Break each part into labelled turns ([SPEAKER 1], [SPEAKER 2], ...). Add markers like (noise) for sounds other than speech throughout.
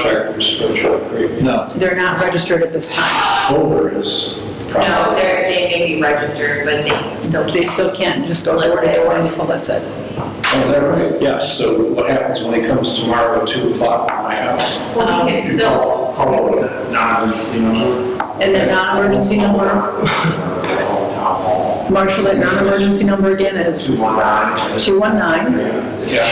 [SPEAKER 1] contractors from Chalk Creek.
[SPEAKER 2] No,
[SPEAKER 3] They're not registered at this time.
[SPEAKER 1] Solar is
[SPEAKER 4] No,
[SPEAKER 1] probably,
[SPEAKER 4] they're, they may be registered, but they still
[SPEAKER 3] They
[SPEAKER 4] can't.
[SPEAKER 3] still can't just go door to door and solicit.
[SPEAKER 1] oh, they're right.
[SPEAKER 2] Yes.
[SPEAKER 1] So what happens when he comes tomorrow at two o'clock at my house?
[SPEAKER 4] Well, we can still,
[SPEAKER 5] Call a non-emergency number.
[SPEAKER 3] And their non-emergency number, marshal, that non-emergency number again is
[SPEAKER 5] Two one nine.
[SPEAKER 3] 219.
[SPEAKER 5] Yeah.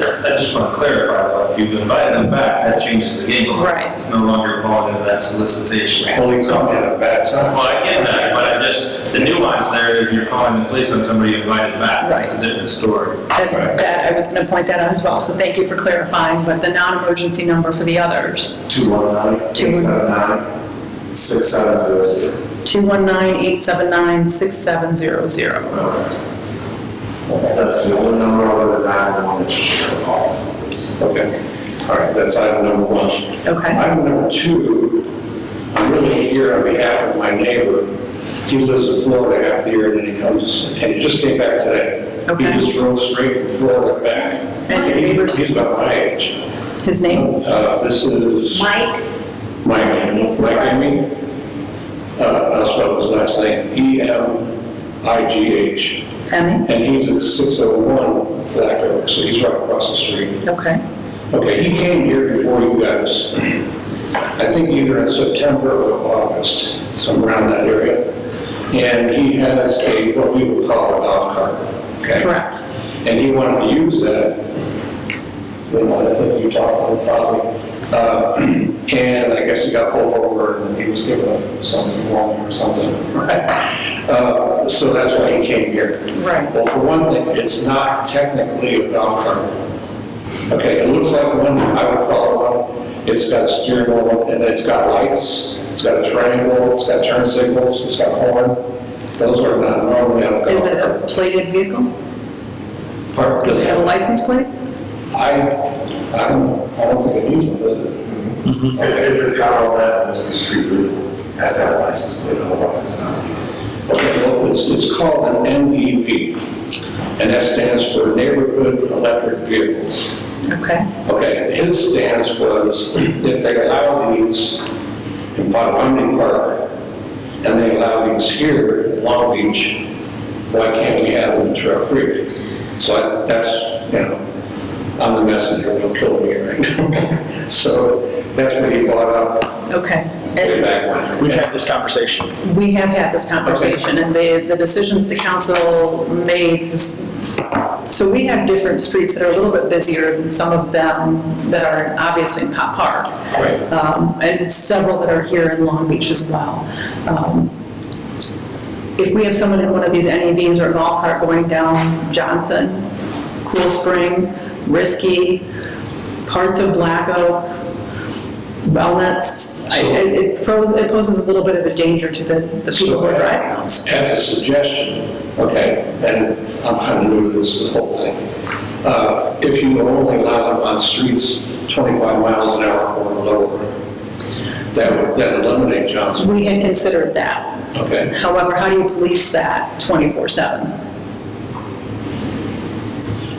[SPEAKER 6] I just want to clarify, though, if you've invited them back, that changes the game. a lot.
[SPEAKER 3] Right.
[SPEAKER 6] It's no longer falling into that solicitation.
[SPEAKER 1] Well, he's on at a bad time.
[SPEAKER 6] Well, I get that, but I just, the nuance there is you're calling the police on somebody you invited back.
[SPEAKER 3] Right.
[SPEAKER 6] That's a different story.
[SPEAKER 3] That, that, I was gonna point that out as well, so thank you for clarifying, but the non-emergency number for the others,
[SPEAKER 5] Two one nine,
[SPEAKER 3] Two.
[SPEAKER 5] eight seven nine, six seven zero zero.
[SPEAKER 3] 219-879-6700.
[SPEAKER 5] That's the only number other than that one that you should call.
[SPEAKER 1] Okay, all right, that's item number one.
[SPEAKER 3] Okay,
[SPEAKER 1] Item number two, I'm really here on behalf of my neighbor. He lives in Florida half the year, and then he comes, and he just came back today.
[SPEAKER 3] Okay.
[SPEAKER 1] He just drove straight from Florida back.
[SPEAKER 3] And your
[SPEAKER 1] He-
[SPEAKER 3] neighbor's-
[SPEAKER 1] He's about my age.
[SPEAKER 3] his name?
[SPEAKER 1] Uh, This is
[SPEAKER 4] Mike,
[SPEAKER 1] Mike,
[SPEAKER 4] It's his
[SPEAKER 1] Mike
[SPEAKER 4] last
[SPEAKER 1] Emmy. Uh, I'll spell his last name, E E-M-I-G-H.
[SPEAKER 3] Emmy?
[SPEAKER 1] And he's at 601 Black Oak, so he's right across the street.
[SPEAKER 3] Okay,
[SPEAKER 1] Okay, he came here before you guys. I think either in September or August, somewhere around that area. And he has a, what we would call a golf cart, okay?
[SPEAKER 3] correct.
[SPEAKER 1] And he wanted to use that, you know, I think you talked on the property. Uh, (clears throat) And I guess he got pulled over and he was given a- something wrong or something, (laughs) right? Uh, So that's why he came here.
[SPEAKER 3] Right.
[SPEAKER 1] Well, for one thing, it's not technically a golf cart. Okay, it looks like one, I would call it one. It's got a steering wheel, and it's got lights, it's got a triangle, it's got turn signals, it's got horn. Those are not normally on a golf cart.
[SPEAKER 3] Is it a plated vehicle?
[SPEAKER 1] Pardon?
[SPEAKER 3] Does it have a license plate?
[SPEAKER 1] I, I don't, I don't think it needs one, does it?
[SPEAKER 5] If, if it's got all that, then it's a street group, has that license, but otherwise it's not.
[SPEAKER 1] Okay, well, it's, it's called an NEV, and that stands for Neighborhood Electric Vehicles.
[SPEAKER 3] Okay,
[SPEAKER 1] Okay, and his stance was, if they allow these in Ponding Park, and they allow these here in Long Beach, why can't we have them in Trail Creek? So I- that's, you know, I'm the messenger, don't kill me, right? (laughs) So that's what he brought up
[SPEAKER 3] okay.
[SPEAKER 1] way
[SPEAKER 3] And
[SPEAKER 1] back when.
[SPEAKER 2] we've had this conversation.
[SPEAKER 3] we have had this conversation, and the, the decision that the council made was, so we have different streets that are a little bit busier than some of them that are obviously in Pop Park.
[SPEAKER 1] Right.
[SPEAKER 3] um, and several that are here in Long Beach as well. Um, If we have someone in one of these NEVs or golf cart going down Johnson, Cool Spring, Risky, parts of Black Oak, Wellnuts, I- it it pros- it poses a little bit of a danger to the the people who are driving those.
[SPEAKER 1] As a suggestion, okay, and I'm kind of new to this whole thing. Uh, If you only allow them on streets 25 miles an hour or lower, that would, that eliminate Johnson,
[SPEAKER 3] We had considered that.
[SPEAKER 1] okay?
[SPEAKER 3] However, how do you police that 24/7?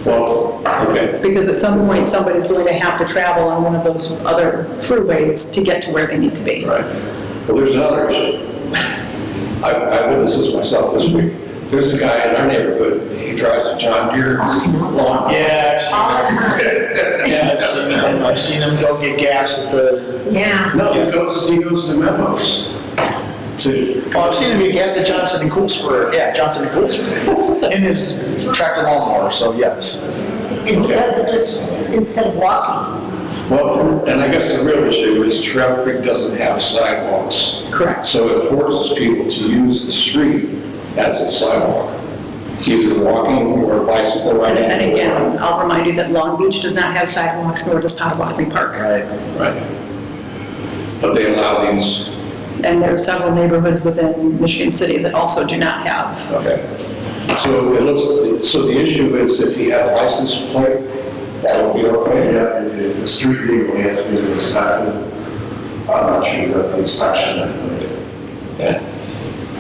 [SPEAKER 1] Well, okay,
[SPEAKER 3] because at some point, somebody's going to have to travel on one of those other throughways to get to where they need to be.
[SPEAKER 1] right. But there's another issue. I I witnessed this myself this week. There's a guy in our neighborhood, he drives a John Deere lawn.
[SPEAKER 2] Yeah, I've
[SPEAKER 4] all the time.
[SPEAKER 2] seen, yeah, I've seen him, I've seen him go get gas at the,
[SPEAKER 4] Yeah.
[SPEAKER 1] No, he goes, he goes to memos.
[SPEAKER 2] to, oh, I've seen him get gas at Johnson and Coolsburg, yeah, Johnson and (laughs) Coolsburg, in his tractor lawnmower, so yes.
[SPEAKER 7] And he does it just instead of walking.
[SPEAKER 1] Well, and I guess the real issue is Trail Creek doesn't have sidewalks.
[SPEAKER 3] Correct.
[SPEAKER 1] So it forces people to use the street as a sidewalk, either walking or bicycle riding.
[SPEAKER 3] And again, I'll remind you that Long Beach does not have sidewalks, nor does Potawatomi Park.
[SPEAKER 2] Right.
[SPEAKER 1] Right. But they allow these,
[SPEAKER 3] And there are several neighborhoods within Michigan City that also do not have.
[SPEAKER 1] okay. So it looks, so the issue is if he had a license plate, that would be okay.
[SPEAKER 5] Yeah, and if the street legal has to be inspected, I'm not sure that's the inspection that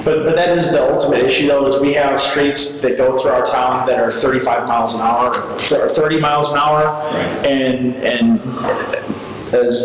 [SPEAKER 2] But, but that is the ultimate issue though, is we have streets that go through our town that are 35 miles an hour, or 30 miles an hour. And, and as